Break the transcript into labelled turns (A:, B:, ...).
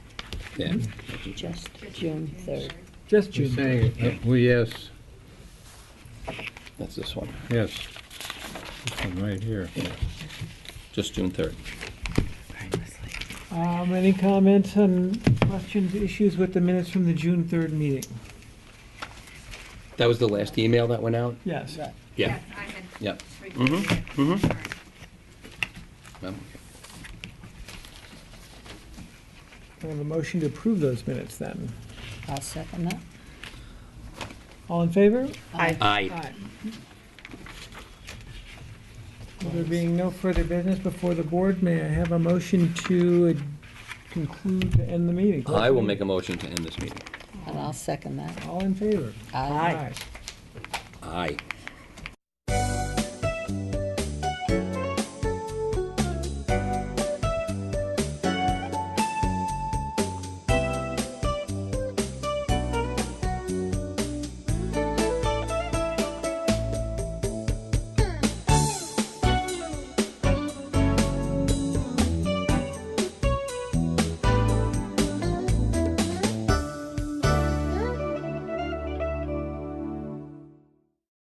A: Yeah.
B: just June 3rd.
C: Just
D: You're
C: June.
D: saying, uh, we, yes,
A: That's this one,
D: yes. This one right here.
A: just June 3rd.
C: Um, any comments on questions, issues with the minutes from the June third meeting?
A: That was the last email that went out?
C: Yes.
A: Yeah.
E: Yes, I had.
A: Yep.
E: reviewed it.
A: mhm.
E: Sorry.
A: Um,
C: I have a motion to approve those minutes then.
B: I'll second that.
C: All in favor?
A: Aye.
C: There being no further business before the board, may I have a motion to conclude, to end the meeting?
A: I will make a motion to end this meeting.
B: And I'll second that.
C: All in favor?
B: Aye.
A: Aye.